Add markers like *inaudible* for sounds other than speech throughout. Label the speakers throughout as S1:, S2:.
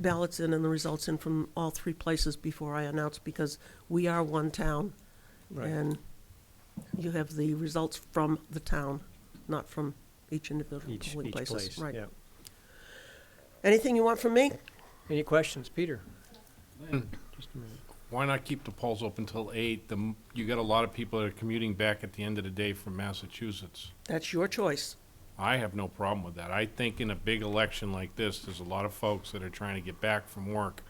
S1: ballots in and the results in from all three places before I announce, because we are one town. And you have the results from the town, not from each individual
S2: Each,
S1: polling
S2: each
S1: places.
S2: place,
S1: Right.
S2: yeah.
S1: Anything you want from me?
S2: Any questions, Peter? Just a minute.
S3: Why not keep the polls open till eight? The, m- you got a lot of people that are commuting back at the end of the day from Massachusetts.
S1: That's your choice.
S3: I have no problem with that. I think in a big election like this, there's a lot of folks that are trying to get back from work,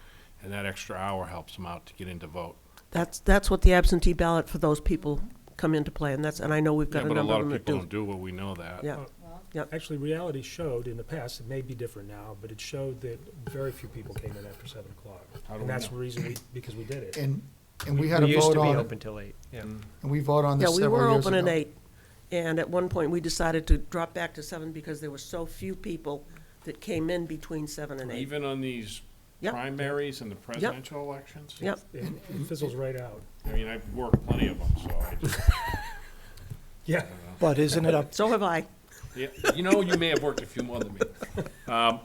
S3: and that extra hour helps them out to get in to vote.
S1: That's, that's what the absentee ballot for those people come into play, and that's, and I know we've
S3: Yeah,
S1: got a
S3: but a
S1: number
S3: lot
S1: of
S3: of
S1: them that do.
S3: people don't do it, we know that.
S1: Yeah,
S4: Actually, reality showed in the past, it may be different now, but it showed that very few people came in after seven o'clock.
S3: How do we
S4: And that's
S3: know?
S4: the reason we, because we did it.
S5: And, and we had a
S2: used to
S5: vote
S2: be
S5: on it,
S2: open till eight, yeah.
S5: and we voted on
S1: yeah,
S5: this
S1: we
S5: several
S1: were
S5: years ago.
S1: open at eight, and at one point, we decided to drop back to seven because there were so few people that came in between seven and eight.
S3: Even on these
S1: Yep.
S3: primaries and the presidential elections?
S1: Yep,
S4: It it fizzles right out.
S3: I mean, I've worked plenty of them, so I just, *laughs*
S4: Yeah.
S2: Oh,
S6: But isn't it up,
S1: so have I.
S3: yeah, you know, you may have worked a few more than me. Um,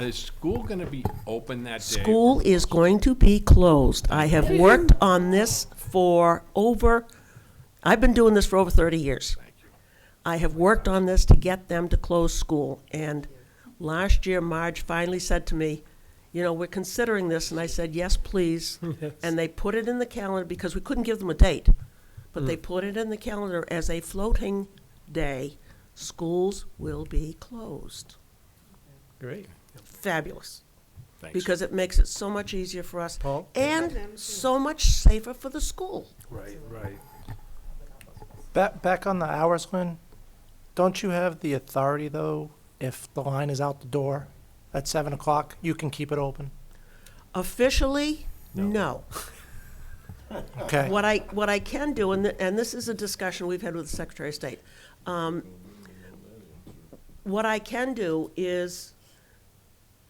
S3: Is school gonna be open that day?
S1: School is going to be closed. I have worked on this for over, I've been doing this for over 30 years. I have worked on this to get them to close school. And last year, Marge finally said to me, you know, we're considering this. And I said, yes, please. And they put it in the calendar because we couldn't give them a date. But they put it in the calendar as a floating day. Schools will be closed.
S2: Great.
S1: Fabulous
S3: Thanks.
S1: because it makes it so much easier for us
S2: Paul?
S1: and so much safer for the school.
S4: Right, right.
S6: back, back on the hours, Lynn? Don't you have the authority, though, if the line is out the door at seven o'clock, you can keep it open?
S1: Officially, no.
S6: Okay,
S1: What I, what I can do, and, th- and this is a discussion we've had with the Secretary of State. um, What I can do is,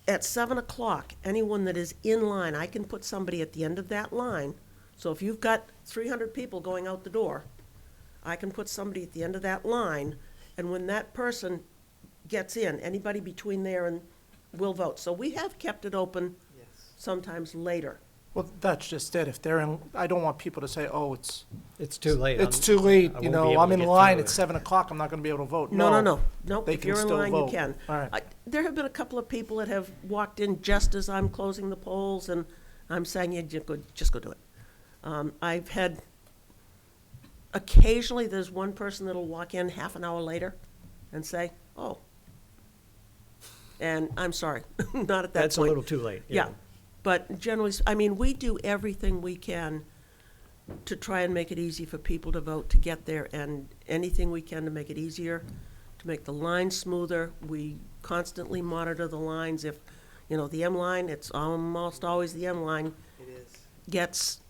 S1: at seven o'clock, anyone that is in line, I can put somebody at the end of that line. So if you've got three hundred people going out the door, I can put somebody at the end of that line, and when that person gets in, anybody between there and will vote. So we have kept it open sometimes later.
S6: well, that's just it, if they're in, I don't want people to say, oh, it's,
S2: *laughs* It's too late.
S6: it's
S2: I'm-
S6: too late,
S2: I won't
S6: you
S2: be
S6: know,
S2: able
S6: I'm
S2: to
S6: in
S2: get
S6: line
S2: through
S6: at
S2: it."
S6: seven o'clock, I'm not gonna be able to vote,
S1: No,
S6: no.
S1: no, no, no,
S6: They
S1: if
S6: can
S1: you're in
S6: still
S1: line, you
S6: vote.
S1: can.
S6: All right.
S1: I- There have been a couple of people that have walked in just as I'm closing the polls, and I'm saying, yeah, just go, just go do it. Um, I've had, occasionally, there's one person that'll walk in half an hour later and say, oh. And I'm sorry, *laughs* not at that point.
S2: That's a little too late,
S1: Yeah,
S2: yeah.
S1: but generally, s- I mean, we do everything we can to try and make it easy for people to vote to get there, and anything we can to make it easier, to make the line smoother. We constantly monitor the lines. If, you know, the M line, it's almost always the M line. Gets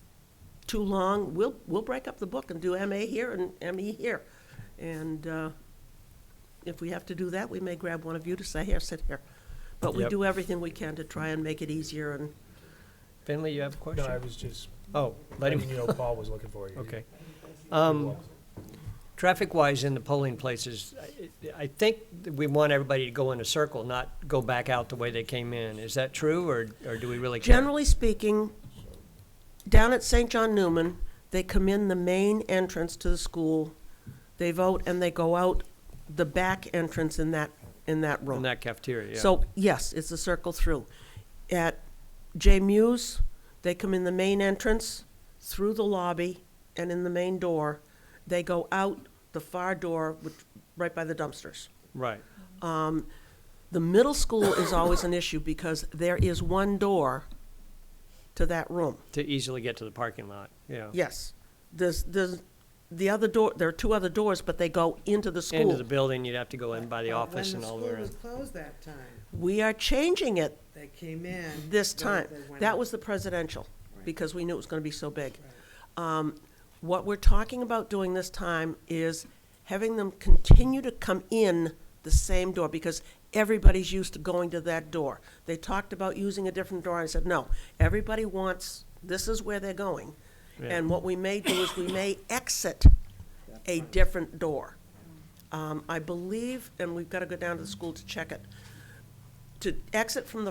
S1: too long, we'll, we'll break up the book and do MA here and ME here. And, uh, if we have to do that, we may grab one of you to say, here, sit here. But we
S2: Yep.
S1: do everything we can to try and make it easier and
S2: Finley, you have a
S4: No, I
S2: question?
S4: was just,
S2: Oh, let
S4: letting *laughs*
S2: him,
S4: you know Paul was looking for you.
S2: okay.
S4: He
S2: Um,
S4: was.
S2: traffic-wise in the polling places, I- I think that we want everybody to go in a circle, not go back out the way they came in. Is that true, or, or do we really care?
S1: Generally speaking, down at St. John Newman, they come in the main entrance to the school, they vote, and they go out the back entrance in that, in that
S2: In
S1: room.
S2: that cafeteria, yeah.
S1: So, yes, it's a circle through. At J Muse, they come in the main entrance, through the lobby, and in the main door. They go out the far door, which, right by the dumpsters.
S2: Right,
S1: The middle school
S2: *coughs*
S1: is always an issue because there is one door to that room.
S2: to easily get to the parking lot, yeah.
S1: Yes. There's, there's, the other door, there are two other doors, but they go into the school.
S2: Into the building, you'd have to go in by the office and all the way
S7: When the
S2: around.
S7: school was closed that time,
S1: We are changing it
S7: they came in.
S1: this
S7: they-
S1: time.
S7: they went
S1: That
S7: out.
S1: was the presidential,
S7: Right.
S1: because we knew it was gonna be so big. Um, What we're talking about doing this time is having them continue to come in the same door, because everybody's used to going to that door. They talked about using a different door, and I said, no, everybody wants, this is where they're going. And what we may do is we may exit a different door. Um, I believe, and we've gotta go down to the school to check it, to exit from the